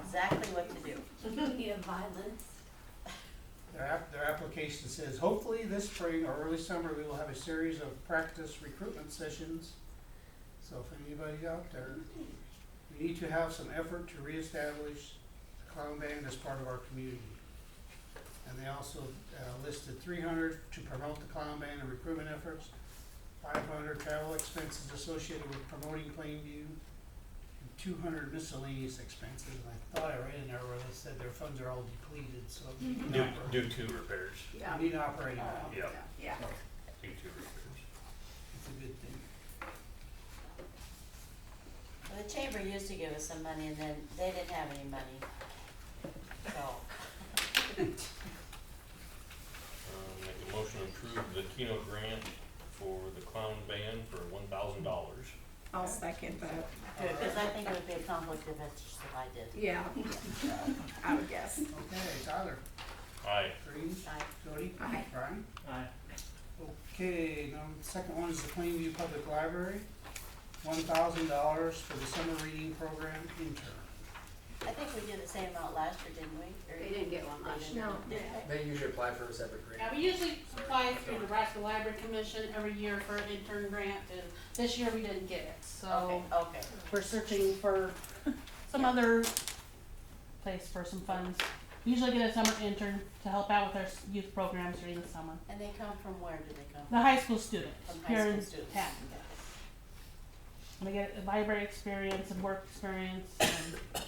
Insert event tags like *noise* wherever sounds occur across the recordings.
exactly what to do. Need a violence. Their app, their application says, hopefully this spring or early summer, we will have a series of practice recruitment sessions. So if anybody's out there, we need to have some effort to reestablish the clown band as part of our community. And they also uh, listed three hundred to promote the clown band and recruitment efforts, five hundred travel expenses associated with promoting Plainview, and two hundred miscellaneous expenses. And I thought I read in there where they said their funds are all depleted, so. Due, due to repairs, We need operating, yeah, due Yeah. to repairs. it's a good thing. Well, the chamber used to give us some money and then they didn't have any money. So, Um, make a motion to approve the Keno grant for the clown band for one thousand dollars. I'll second that. because I think it would be a conflict of interest if I did. Yeah. I would guess. Okay, Tyler, Aye. Green, I- Jody, Aye. Brian. Aye. Okay, now, the second one is the Plainview Public Library, one thousand dollars for the summer reading program intern. I think we did the same amount last year, didn't we? Or- They didn't get one last year. No. Did they? They usually apply for a separate grant. Yeah, we usually apply through the Nebraska Library Commission every year for an intern grant, and this year we didn't get it, so Okay, okay. we're searching for *laughs* some other place for some funds. Usually get a summer intern to help out with our s- youth programs during the summer. And they come from where do they come? The high school students, From high here school in students. town. And they get library experience and work experience and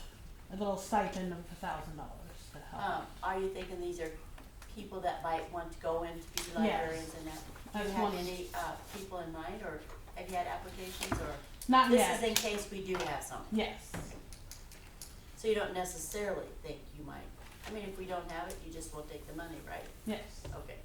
a little stipend of a thousand dollars to help. Um, are you thinking these are people that might want to go in to be Yes. librarians and that? Do That's you have one. any, uh, people in mind or have you had applications or? Not This is yet, in case we do have some. yes, So you don't necessarily think you might, I mean, if we don't have it, you just won't take the money, right? yes. Okay.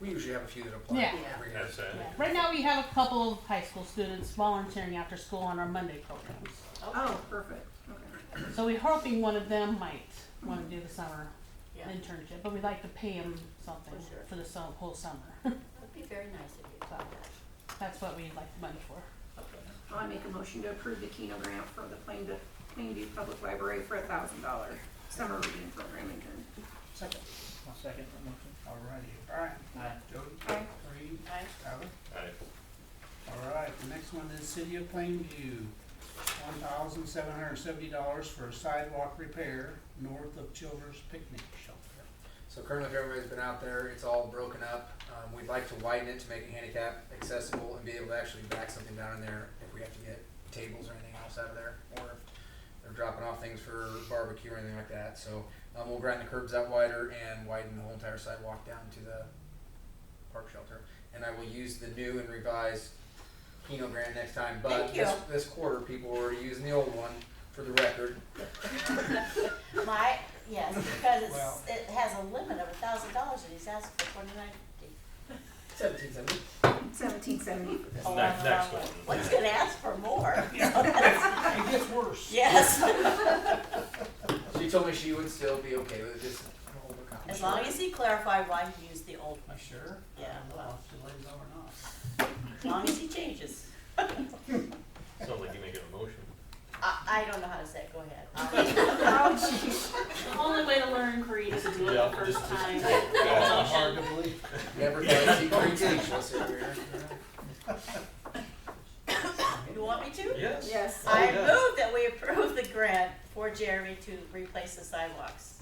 We usually have a few that apply Yeah. every year. That's it. Yeah. Right now, we have a couple of high school students volunteering after school on our Monday programs. Oh, perfect. Okay. So we're hoping one of them might want to do the summer Yeah, internship, but we'd like to pay them something For sure. for the sum- whole summer. *laughs* would be very nice if you thought that. That's what we'd like the money for. I make a motion to approve the Keno grant for the Plainview, Plainview Public Library for a thousand dollar summer reading program intern. Second, I'll second that motion. alrighty, Brian, Aye. Jody, Aye. Green, Aye. Tyler. Aye. Alright, the next one is City of Plainview, one thousand seven hundred and seventy dollars for a sidewalk repair north of Children's Picnic Shelter. So currently, if everybody's been out there, it's all broken up. Um, we'd like to widen it to make it handicap accessible and be able to actually back something down in there if we have to get tables or anything else out of there, or if they're dropping off things for barbecue or anything like that. So, um, we'll grind the curbs out wider and widen the whole entire sidewalk down to the park shelter. And I will use the new and revised Keno grant next time, but Thank you. this, this quarter, people were using the old one for the record. *laughs* My, yes, because it's, Well- it has a limit of a thousand dollars and he's asked for twenty-nine fifty. Seventeen seventy. Seventeen *laughs* seventy. Oh, Next- I'm the next wrong one. Well, he's gonna ask for *laughs* more. It gets worse. Yes, She told me she would still be okay with it, just overcome. as long as he clarified why he used the old, Am I sure? Yeah, I don't know well. if she lays on or not. as long as he changes. Sounds like you make a motion. I, I don't know how to say it, go ahead. *laughs* The only way to learn Korean is to do Yeah, just- just- *laughs* Hard to believe. *laughs* Never thought she could teach, let's see here. You want me to? Yes. Yes. Oh, I yeah. move that we approve the grant for Jeremy to replace the sidewalks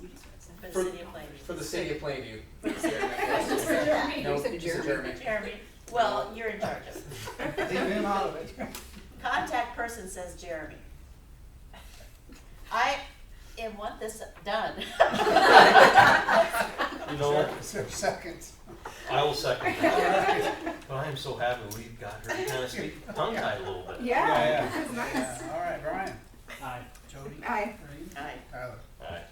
for the For- city of Plainview. For the city of Plainview. No, You just Jeremy. Jeremy, well, you're in charge of it. Leave him out of it. Contact person says Jeremy. I am want this done. You know, Is there a second? I will second that. But I am so happy we got her to kind of speak tongue tied a little bit. Yeah. Yeah, Yeah, All right, Brian, Aye. Jody, Aye. Green, Aye. Tyler. Aye.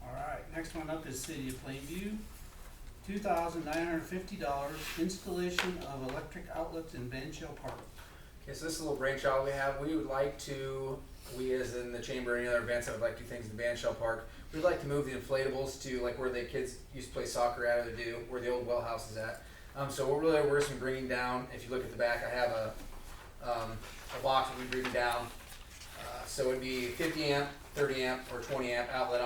All right, next one up is City of Plainview. Two thousand nine hundred fifty dollars installation of electric outlets in Van Shell Park. Okay, so this is a little brainchild we have. We would like to, we as in the chamber, any other events that would like to do things in Van Shell Park, we'd like to move the inflatables to like where the kids used to play soccer at or they do, where the old well house is at. Um, so we're really we're just bringing down, if you look at the back, I have a, um, a box that we bring down. Uh, So it'd be fifty amp, thirty amp, or twenty amp outlet